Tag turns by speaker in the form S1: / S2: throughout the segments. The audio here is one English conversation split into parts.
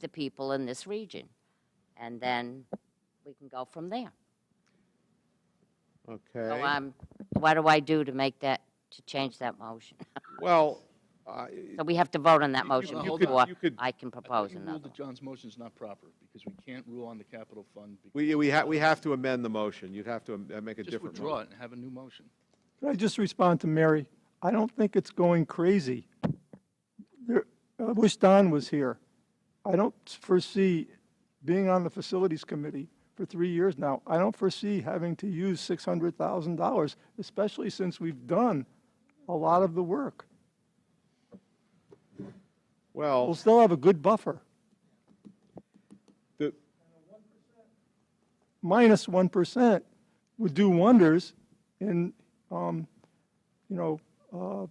S1: the people in this region. And then we can go from there. So
S2: Okay.
S1: I'm, what do I do to make that, to change that motion?
S2: Well, I-
S1: So we have to vote on that motion
S3: you could-
S1: before
S2: you could-
S1: I can
S3: I thought
S1: propose
S3: you ruled
S1: another.
S3: that John's motion is not proper, because we can't rule on the capital fund. because-
S2: we, we have, we have to amend the motion. You'd have to am- uh, make a
S3: Just
S2: different
S3: withdraw
S2: motion.
S3: it and have a new motion.
S4: Could I just respond to Mary? I don't think it's going crazy. There, I wish Don was here. I don't foresee being on the facilities committee for three years now. I don't foresee having to use six hundred thousand dollars, especially since we've done a lot of the work. We'll
S2: Well,
S4: still have a good buffer,
S2: the,
S4: minus one percent would do wonders in, um, you know, uh,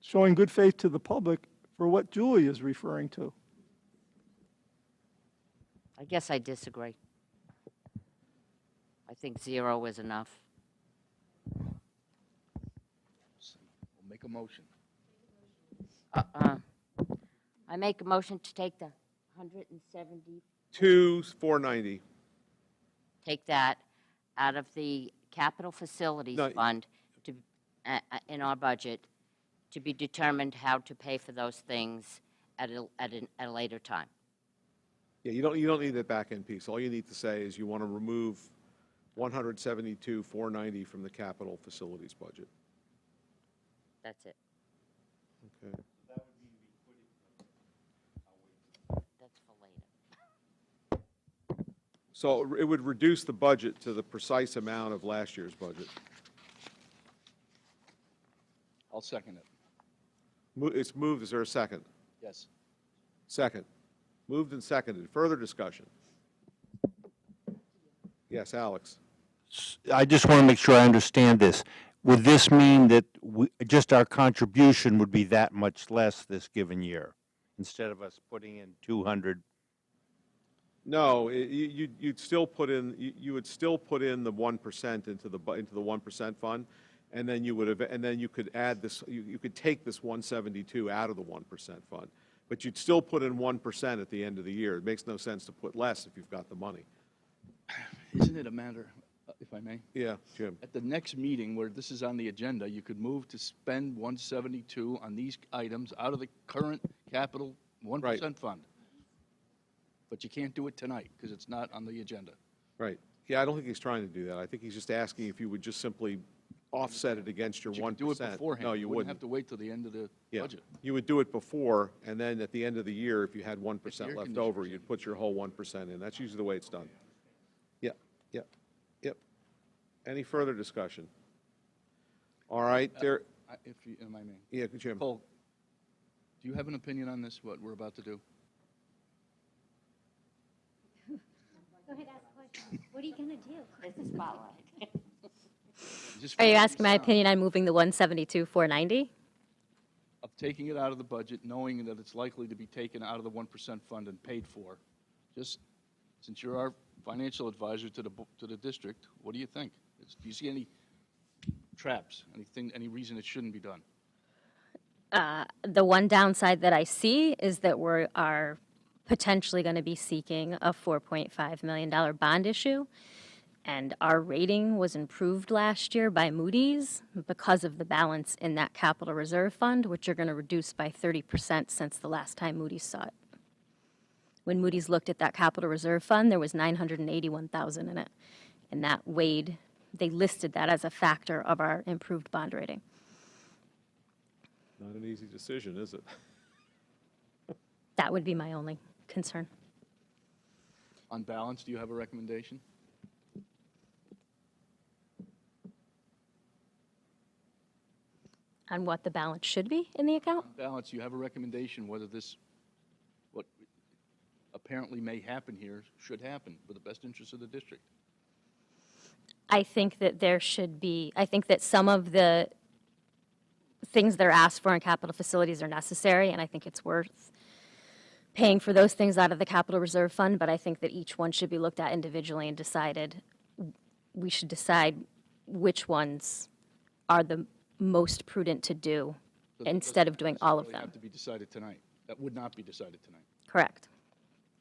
S4: showing good faith to the public for what Julie is referring to.
S1: I guess I disagree. I think zero is enough.
S3: We'll make a motion.
S1: Uh, I make a motion to take the 170,
S2: two, four ninety.
S1: take that out of the capital facilities
S2: No.
S1: fund to, uh, uh, in our budget, to be determined how to pay for those things at a, at an- at a later time.
S2: Yeah, you don't, you don't need that back end piece. All you need to say is you want to remove one hundred seventy-two, four ninety from the capital facilities budget.
S1: That's it.
S2: Okay.
S1: That's for later.
S2: So it would reduce the budget to the precise amount of last year's budget.
S3: I'll second it.
S2: Mo- It's moved, is there a second?
S3: Yes.
S2: Second. Moved and seconded. Further discussion? Yes, Alex?
S5: I just want to make sure I understand this. Would this mean that we, just our contribution would be that much less this given year? Instead of us putting in two hundred,
S2: No, i- you, you'd- you'd still put in, you you would still put in the 1% into the, bu- into the 1% fund, and then you would have, and then you could add this, you, you could take this 172 out of the 1% fund. But you'd still put in 1% at the end of the year. It makes no sense to put less if you've got the money.
S3: Isn't it a matter, uh, if I may?
S2: Yeah, Jim?
S3: At the next meeting where this is on the agenda, you could move to spend 172 on these items out of the current capital 1% fund. But you can't do it tonight, because it's not on the agenda.
S2: Right. Yeah, I don't think he's trying to do that. I think he's just asking if you would just simply offset it against your
S3: But You
S2: 1%.
S3: could do it beforehand.
S2: No, you
S3: have
S2: wouldn't.
S3: to wait till the end of the
S2: Yeah.
S3: budget.
S2: You would do it before, and then at the end of the year, if you had 1%
S3: air
S2: left
S3: conditioners
S2: over, you'd put your whole 1% in. That's usually the way it's done. Yep, yep, yep. Any further discussion? All right,
S3: Uh,
S2: there,
S3: I- If you, am I may?
S2: yeah, Jim.
S3: Cole, do you have an opinion on this, what we're about to do?
S6: Go ahead, ask a question. What are you gonna do?
S1: It's spotlight.
S3: Just
S7: Are you
S3: follow
S7: asking my
S3: the sound
S7: opinion on moving the 172, 490?
S3: Of taking it out of the budget, knowing that it's likely to be taken out of the 1% fund and paid for. Just, since you're our financial advisor to the, bo- to the district, what do you think? Is- Do you see any traps, anything, any reason it shouldn't be done?
S7: The one downside that I see is that we are potentially going to be seeking a $4.5 million bond issue. And our rating was improved last year by Moody's because of the balance in that capital reserve fund, which you're going to reduce by 30% since the last time Moody's saw it. When Moody's looked at that capital reserve fund, there was 981,000 in it. And that weighed, they listed that as a factor of our improved bond rating.
S2: Not an easy decision, is it?
S7: That would be my only concern.
S3: On balance, do you have a recommendation?
S7: on what the balance should be in the account?
S3: Balance, do you have a recommendation whether this, what apparently may happen here, should happen for the best interest of the district?
S7: I think that there should be, I think that some of the things that are asked for in capital facilities are necessary, and I think it's worth paying for those things out of the capital reserve fund, but I think that each one should be looked at individually and decided, we should decide which ones are the most prudent to do
S3: So that
S7: instead
S3: doesn't
S7: of doing all of
S3: necessarily Have
S7: them.
S3: to be decided tonight. That would not be decided tonight.
S7: Correct.